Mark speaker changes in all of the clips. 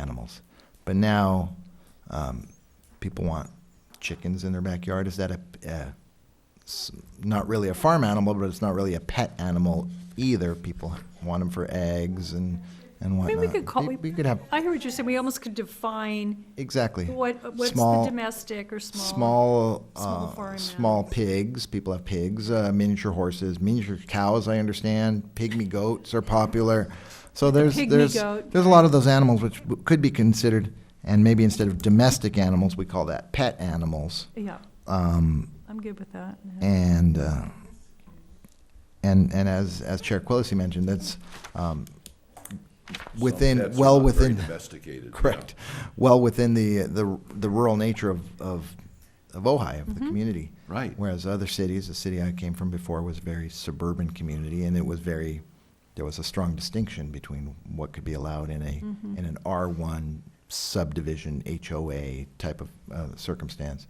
Speaker 1: animals. But now, um, people want chickens in their backyard. Is that a, a s- not really a farm animal, but it's not really a pet animal either. People want them for eggs and, and
Speaker 2: I
Speaker 1: whatnot.
Speaker 2: mean, we could call,
Speaker 1: We-
Speaker 2: we-
Speaker 1: we could have,
Speaker 2: I heard what you're saying, we almost could define
Speaker 1: exactly.
Speaker 2: what, uh, what's the
Speaker 1: Small-
Speaker 2: domestic or small.
Speaker 1: Small,
Speaker 2: small
Speaker 1: uh,
Speaker 2: farm
Speaker 1: small
Speaker 2: animals.
Speaker 1: pigs, people have pigs, uh, miniature horses, miniature cows, I understand, pygmy goats are popular. So there's,
Speaker 2: pygmy
Speaker 1: there's,
Speaker 2: goat.
Speaker 1: there's a lot of those animals which w- could be considered, and maybe instead of domestic animals, we call that pet animals.
Speaker 2: Yeah,
Speaker 1: Um,
Speaker 2: I'm good with that. yeah.
Speaker 1: and uh, and and as as Chair Quillisi mentioned, that's um, within,
Speaker 3: pets are
Speaker 1: well
Speaker 3: not very
Speaker 1: within.
Speaker 3: domesticated, yeah.
Speaker 1: Correct, well within the the the rural nature of of of Ojai, of the community.
Speaker 3: Right.
Speaker 1: Whereas other cities, the city I came from before was a very suburban community, and it was very, there was a strong distinction between what could be allowed in a, in an R1 subdivision HOA type of uh, circumstance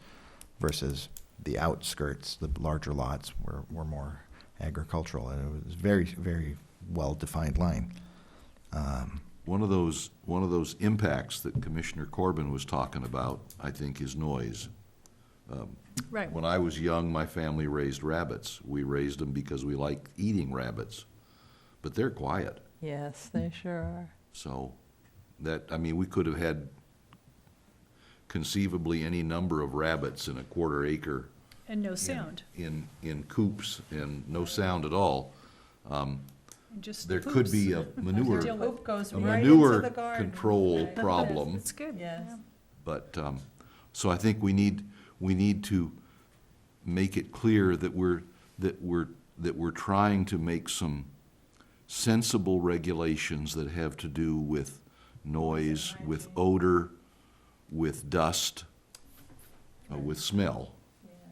Speaker 1: versus the outskirts, the larger lots were, were more agricultural, and it was very, very well-defined line.
Speaker 3: One of those, one of those impacts that Commissioner Corbin was talking about, I think, is noise.
Speaker 2: Right,
Speaker 3: When I was young, my family raised rabbits. We raised them because we liked eating rabbits, but they're quiet.
Speaker 4: Yes, they sure are.
Speaker 3: So that, I mean, we could have had conceivably any number of rabbits in a quarter acre
Speaker 2: and no sound,
Speaker 3: in, in coops and no sound at all.
Speaker 2: and just
Speaker 3: There could be a manure,
Speaker 2: Deal with-
Speaker 4: Poop goes
Speaker 3: a
Speaker 4: right into
Speaker 3: manure
Speaker 4: the garden.
Speaker 3: control problem.
Speaker 2: It's good.
Speaker 4: Yes.
Speaker 2: yeah.
Speaker 3: But, um, so I think we need, we need to make it clear that we're, that we're, that we're trying to make some sensible regulations that have to do with noise, with odor, with dust, uh, with smell.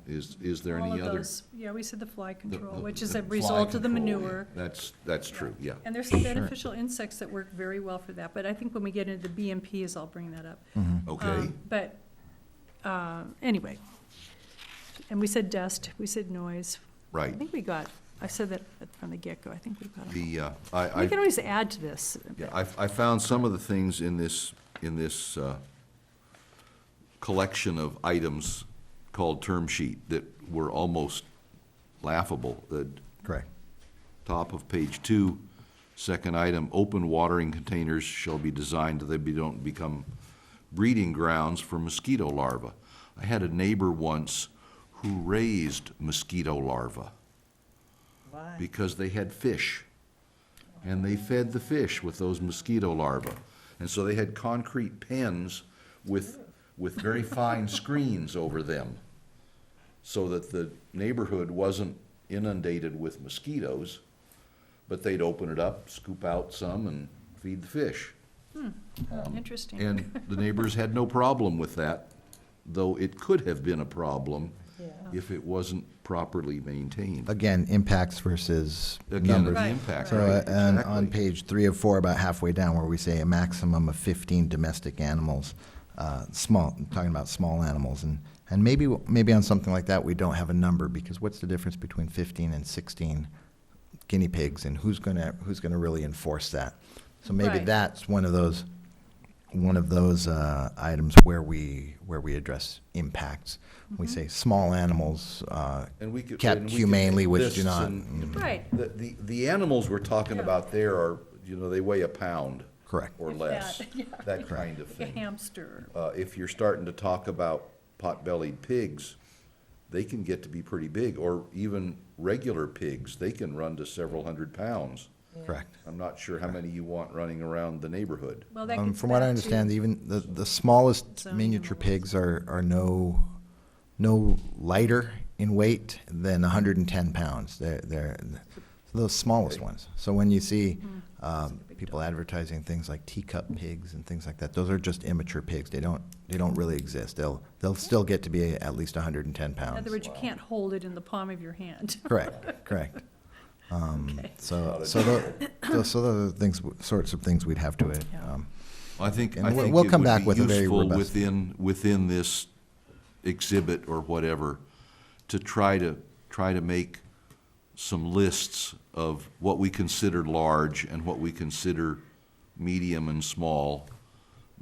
Speaker 3: Is, is there
Speaker 2: All
Speaker 3: any
Speaker 2: of
Speaker 3: other?
Speaker 2: those, yeah, we said the fly
Speaker 3: the-
Speaker 2: control,
Speaker 3: the-
Speaker 2: which is
Speaker 3: the
Speaker 2: a
Speaker 3: fly
Speaker 2: result of the
Speaker 3: control, yeah.
Speaker 2: manure.
Speaker 3: That's, that's true, yeah.
Speaker 2: And there's some beneficial insects that work very well for that, but I think when we get into the BMPs, I'll bring that up.
Speaker 1: Mm-hmm.
Speaker 3: Okay,
Speaker 2: Um, But, uh, anyway, and we said dust, we said noise. I
Speaker 3: right.
Speaker 2: think we got, I said that from the get-go, I think we got it.
Speaker 3: The, uh, I, I.
Speaker 2: We can always add to this.
Speaker 3: Yeah, I, I found some of the things in this, in this, uh, collection of items called term sheet that were almost laughable. The
Speaker 1: Correct.
Speaker 3: top of page two, second item, open watering containers shall be designed that they be- don't become breeding grounds for mosquito larvae. I had a neighbor once who raised mosquito larvae
Speaker 4: Why?
Speaker 3: because they had fish. And they fed the fish with those mosquito larvae. And so they had concrete pens with, with very fine screens over them so that the neighborhood wasn't inundated with mosquitoes. But they'd open it up, scoop out some, and feed the fish.
Speaker 2: Interesting.
Speaker 3: And the neighbors had no problem with that, though it could have been a problem if it wasn't properly maintained.
Speaker 1: Again, impacts versus
Speaker 3: Again,
Speaker 1: numbers.
Speaker 3: the
Speaker 2: Right,
Speaker 3: impact.
Speaker 1: So,
Speaker 3: right,
Speaker 1: uh, and on
Speaker 3: exactly.
Speaker 1: page three of four, about halfway down, where we say a maximum of fifteen domestic animals, uh, small, I'm talking about small animals, and, and maybe, maybe on something like that, we don't have a number, because what's the difference between fifteen and sixteen guinea pigs, and who's gonna, who's gonna really enforce that? So maybe
Speaker 2: Right.
Speaker 1: that's one of those, one of those, uh, items where we, where we address impacts. We
Speaker 2: Mm-hmm.
Speaker 1: say small animals, uh,
Speaker 3: And we could- and
Speaker 1: kept
Speaker 3: we could
Speaker 1: humanely,
Speaker 3: make
Speaker 1: which
Speaker 3: lists
Speaker 1: do not.
Speaker 3: and-
Speaker 2: Right,
Speaker 3: The, the, the animals we're talking
Speaker 2: Yeah.
Speaker 3: about there are, you know, they weigh a pound.
Speaker 1: Correct.
Speaker 3: Or
Speaker 2: If
Speaker 3: less,
Speaker 2: that, yeah.
Speaker 3: that kind of
Speaker 2: like a
Speaker 3: thing.
Speaker 2: hamster.
Speaker 3: Uh, if you're starting to talk about pot-bellied pigs, they can get to be pretty big, or even regular pigs, they can run to several hundred pounds.
Speaker 1: Correct.
Speaker 3: I'm not sure how many you want running around the neighborhood.
Speaker 2: Well, that
Speaker 1: Um,
Speaker 2: gets
Speaker 1: from what
Speaker 2: back
Speaker 1: I
Speaker 2: to-
Speaker 1: understand, even the, the smallest
Speaker 2: Zoning
Speaker 1: miniature
Speaker 2: and all that.
Speaker 1: pigs are, are no, no lighter in weight than hundred and ten pounds. They're, they're the smallest ones. So when you see,
Speaker 2: Mm.
Speaker 1: um, people advertising things like teacup pigs and things like that, those are just immature pigs. They don't, they don't really exist. They'll, they'll still get to be at least hundred and ten
Speaker 2: In
Speaker 1: pounds.
Speaker 2: other words, you can't hold it in the palm of your hand.
Speaker 1: Correct, correct. Um,
Speaker 2: Okay.
Speaker 1: so, so the, so those are the things, sorts of things we'd have to, um,
Speaker 3: I think,
Speaker 1: And
Speaker 3: I
Speaker 1: we'll-
Speaker 3: think
Speaker 1: we'll
Speaker 3: it
Speaker 1: come
Speaker 3: would
Speaker 1: back
Speaker 3: be
Speaker 1: with a very
Speaker 3: useful
Speaker 1: robust-
Speaker 3: within, within this exhibit or whatever, to try to, try to make some lists of what we consider large and what we consider medium and small,